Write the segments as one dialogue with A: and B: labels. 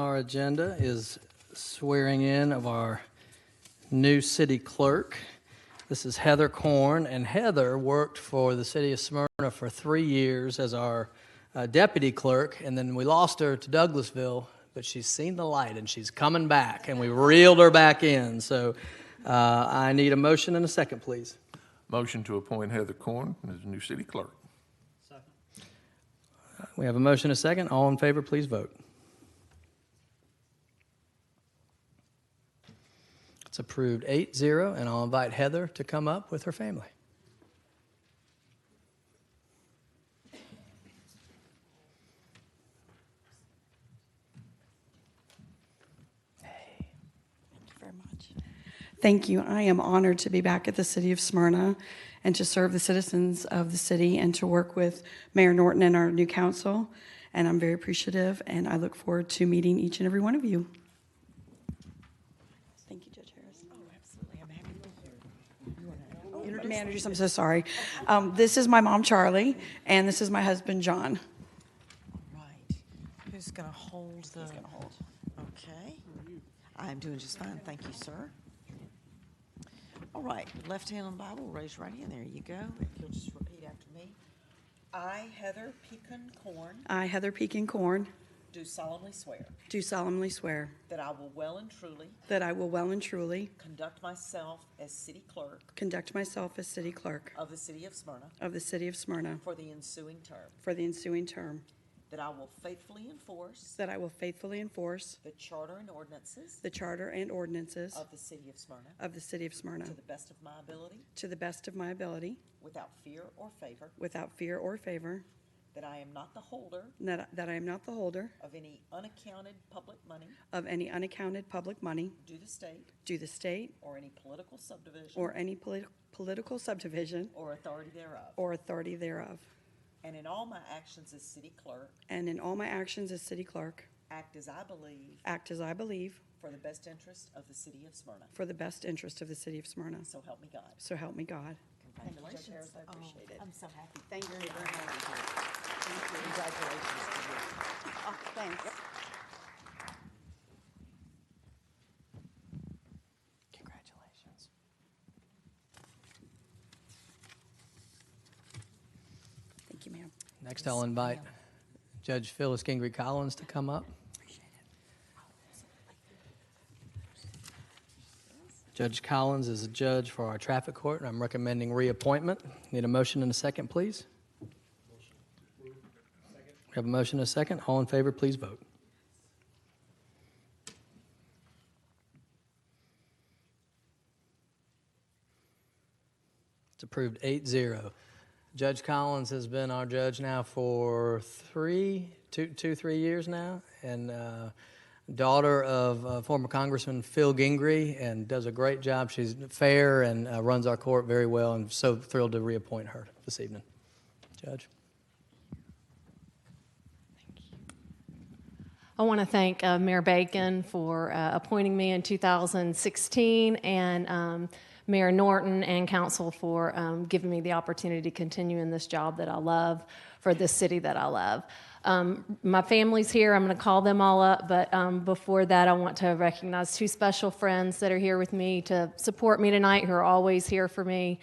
A: Our agenda is swearing in of our new city clerk. This is Heather Corn, and Heather worked for the city of Smyrna for three years as our uh, deputy clerk, and then we lost her to Douglasville, but she's seen the light and she's coming back, and we reeled her back in. So uh, I need a motion and a second, please.
B: Motion to appoint Heather Corn as new city clerk.
A: We have a motion and a second. All in favor, please vote. It's approved 8 0, and I'll invite Heather to come up with her family.
C: Thank you very much. Thank you. I am honored to be back at the City of Smyrna and to serve the citizens of the city and to work with Mayor Norton and our new council. And I'm very appreciative, and I look forward to meeting each and every one of you. Thank you, Judge Harris. Oh, absolutely. I'm happy to be here. Managers, I'm so sorry. Um, This is my mom, Charlie, and this is my husband, John.
D: Right. Who's going to hold the? Who's going to hold? Okay. I'm doing just fine. Thank you, sir. All right, left hand on the Bible, raise your right hand. There you go. If you'll just repeat after me. I, Heather Pecan Corn,
C: I, Heather Pekin Corn,
D: do solemnly swear
C: do solemnly swear
D: that I will well and truly
C: that I will well and truly
D: conduct myself as city clerk
C: Conduct myself as city clerk
D: of the city of Smyrna
C: of the city of Smyrna
D: for the ensuing term,
C: for the ensuing term,
D: that I will faithfully enforce
C: that I will faithfully enforce
D: the charter and ordinances
C: the charter and ordinances
D: of the city of Smyrna
C: of the city of Smyrna
D: to the best of my ability,
C: to the best of my ability,
D: without fear or favor,
C: without fear or favor,
D: That I am not the holder
C: and that that I am not the holder
D: of any unaccounted public money
C: of any unaccounted public money
D: due to state
C: due the state
D: or any political subdivision
C: or any politi- political subdivision
D: or authority thereof.
C: or authority thereof,
D: And in all my actions as city clerk,
C: and in all my actions as city clerk,
D: act as I believe
C: act as I believe
D: for the best interest of the city of Smyrna.
C: for the best interest of the city of Smyrna.
D: So help me God.
C: So help me God.
D: Congratulations. Oh, I appreciate it.
E: I'm so happy. Thank you very much.
D: Congratulations to you.
E: Oh, thanks.
A: Congratulations.
C: Thank you, ma'am.
A: Next, I'll invite Judge Phyllis Gingrich Collins to come up. Judge Collins is a judge for our traffic court, and I'm recommending reappointment. Need a motion and a second, please? We have a motion and a second. All in favor, please vote. It's approved 8 0. Judge Collins has been our judge now for three, two, two, three years now, and uh, daughter of uh, former Congressman Phil Gingrey, and does a great job. She's fair and uh, runs our court very well, and so thrilled to reappoint her this evening. Judge.
F: I want to thank uh, Mayor Bacon for uh, appointing me in 2016 and um, Mayor Norton and Council for um, giving me the opportunity to continue in this job that I love for this city that I love. Um, my family's here. I'm going to call them all up, but um, before that, I want to recognize two special friends that are here with me to support me tonight, who are always here for me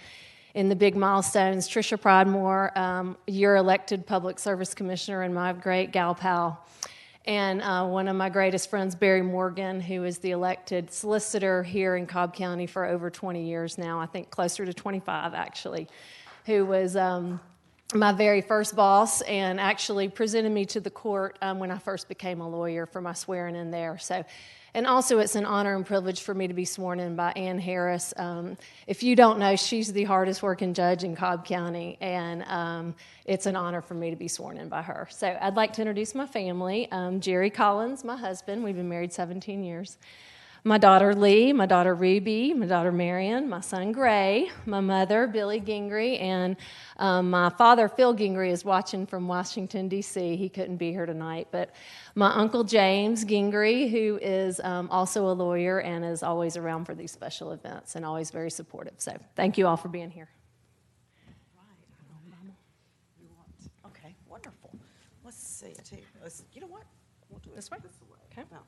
F: in the big milestones. Trisha Pridemore, um, you're elected public service commissioner, and my great gal pal. And uh, one of my greatest friends, Barry Morgan, who is the elected solicitor here in Cobb County for over 20 years now, I think closer to 25 actually, who was um, my very first boss and actually presented me to the court um, when I first became a lawyer for my swearing in there. So, and also it's an honor and privilege for me to be sworn in by Ann Harris. Um, if you don't know, she's the hardest working judge in Cobb County, and um, it's an honor for me to be sworn in by her. So I'd like to introduce my family. Um, Jerry Collins, my husband, we've been married 17 years. My daughter Lee, my daughter Ruby, my daughter Marion, my son Gray, my mother Billy Gingrey, and um, my father Phil Gingrey is watching from Washington, D.C. He couldn't be here tonight, but my uncle James Gingrey, who is um, also a lawyer and is always around for these special events and always very supportive. So thank you all for being here.
D: You want- Okay, wonderful. Let's see it here. Let's, you know what? We'll do it this way.
F: Okay.
D: No.